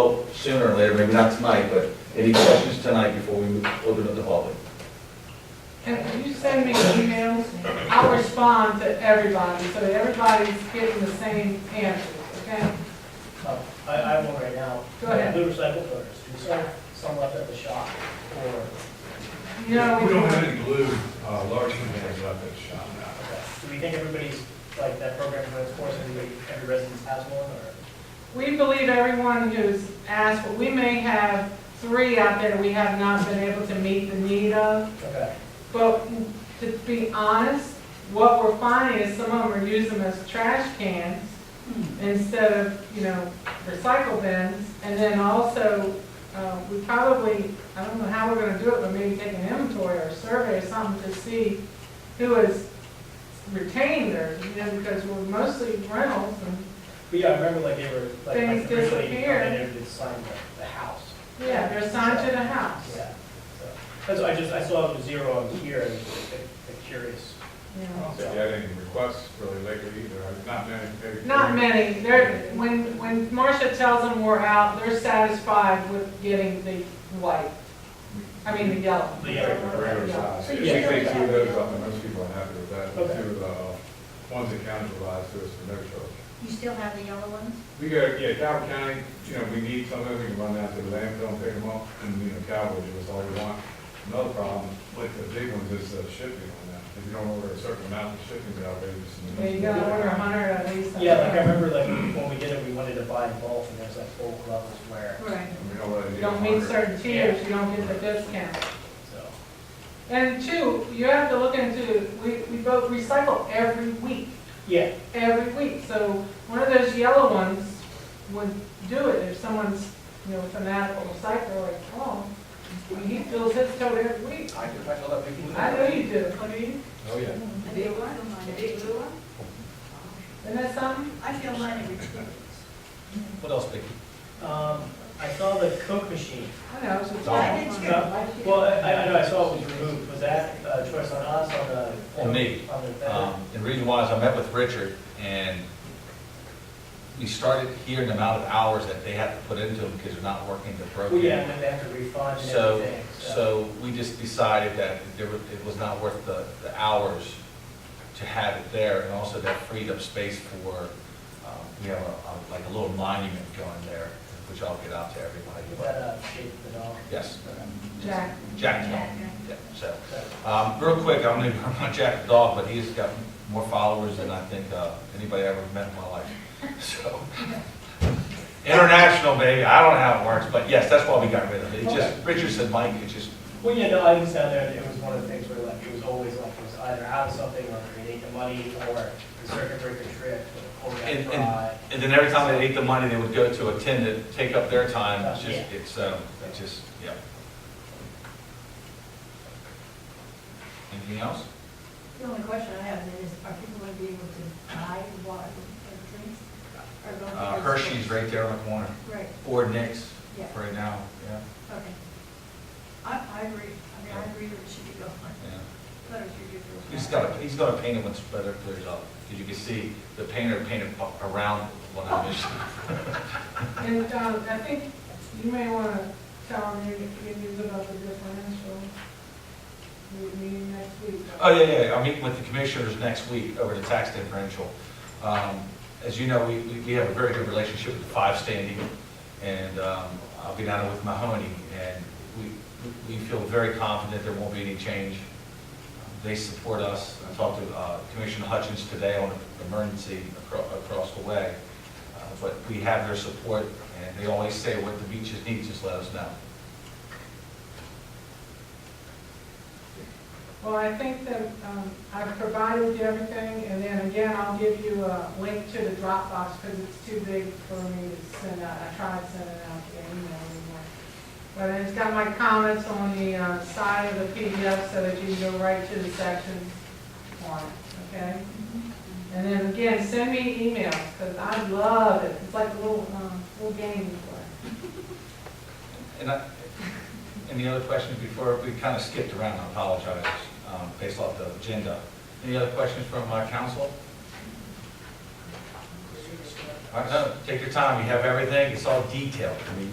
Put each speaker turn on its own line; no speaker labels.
vote sooner or later, maybe not tonight, but any questions tonight before we open up the public?
And you send me emails, I'll respond to everybody, so that everybody's getting the same answers, okay?
Oh, I, I have one right now.
Go ahead.
Blue recycle filters, we sold some left at the shop for,
You know,
We don't have any blue, uh, large containers left at the shop now.
okay. do we think everybody's, like, that program runs course, everybody, every residence has one, or?
We believe everyone who's asked, but we may have three out there we have not been able to meet the need of.
Okay,
But to be honest, what we're finding is some of them are using them as trash cans instead of, you know, recycle bins. And then also, uh, we probably, I don't know how we're gonna do it, but maybe take an inventory or a survey or something to see who has retained theirs, you know, because we're mostly rentals and,
but yeah, I remember like they were, like,
Things
like originally, you
disappear.
know, they never did sign the, the house.
yeah, they're assigned to the house.
Yeah, so, that's, I just, I saw it was zero on here, and I'm curious.
you
I
know.
don't think we had any requests really lately either, I've not been. maybe-
Not many, they're, when, when Marcia tells them we're out, they're satisfied with getting the white, I mean, the yellow.
Mm-hmm. The
Yeah, the regular size.
Yeah.
If you take two of those up, then most people are happy with that, but
Okay.
two of the ones that county provides to us for no charge.
You still have the yellow ones?
We go, yeah, Calvin County, you know, we need some of them, we can run down to the landfill and pick them up, and, you know, Calvin, give us all we want. Another problem with the big ones is uh, shipping on that, if you don't order a certain amount of shipping, they're outrageous.
Yeah, you gotta order a hundred at least.
Yeah, like, I remember like, when we did it, we wanted to buy in bulk, and there's like whole levels where,
Right.
We know what I
You
did.
don't meet certain tiers, you don't get the discount.
so.
And two, you have to look into, we, we both recycle every week,
Yeah,
every week. So one of those yellow ones would do it if someone's, you know, fanatical recycler like Tom. I mean, he fills his tote every week.
I do, I know that people.
I know you do, I mean.
Oh, yeah.
The big one, the big blue one?
Isn't that something?
I feel mine every two
What else, Vicki?
um, I saw the Coke machine.
I know, it's just.
I did too.
Uh, Well, I, I know, I saw it was removed, was that a choice on us, on the?
On me.
On the vendor?
Um, The reason why is I met with Richard, and we started hearing the amount of hours that they have to put into them because they're not working the
Well, yeah,
program.
and then they have to refund and
So,
everything, so.
so we just decided that there were- it was not worth the, the hours to have it there, and also that freed up space for, um, we have a, a- like a little monument going there, which I'll get out to everybody.
Is that
but-
a shape of the dog?
Yes,
Jack.
Jack,
Jack, yeah.
yeah, so.
So,
Um, real quick, I'm gonna, I'm not Jack the dog, but he's got more followers than I think, uh, anybody I ever met in my life, so. International, baby, I don't know how it works, but yes, that's why we got rid of it, it just, Richard said, Mike, it just,
Well, yeah, no, I was down there, and it was one of the things where like, it was always like, it was either out of something, or create the money, or the circuit breaker trip, or the
And-
Corvette
and-
ride.
and then every time they ate the money, they would go to a tin to take up their time, it's just,
Yeah.
it's, um, it's just, yeah. Anything else?
The only question I have is, are people going to be able to buy water or drinks? Or going to-
Uh, Hershey's right there on the corner,
Right,
or Nick's,
yeah,
right now, yeah,
okay. I, I agree, I mean, I agree that it should be gone,
yeah.
but it should be. for-
He's got, he's got to paint it once the weather clears up, because you can see the painter painted a- around what I missed.
And, um, I think you may wanna tell them your good news about the differential. Your meeting next week.
Oh, yeah, yeah, I'm meeting with the commissioners next week over the tax differential. Um, As you know, we, we we have a very good relationship with the five standing, and um, I'll be down there with Mahoney, and we, we feel very confident there won't be any change. They support us. I talked to uh, Commissioner Hutchins today on the emergency acro- across the way, Uh, but we have their support, and they always say what the beaches need, just let us know.
Well, I think that, um, I've provided you everything, and then again, I'll give you a link to the Dropbox, because it's too big for me to send out. I tried sending out the email anymore. But it's got my comments on the, uh, side of the PDF, so that you can go right to the sections on it, okay? And then again, send me emails, because I love it. It's like a little, um, little game you play.
And I, any other questions before, we kind of skipped around, I apologize, um, based off the agenda. Any other questions from uh, council? I know, take your time, you have everything, it's all detailed, I mean,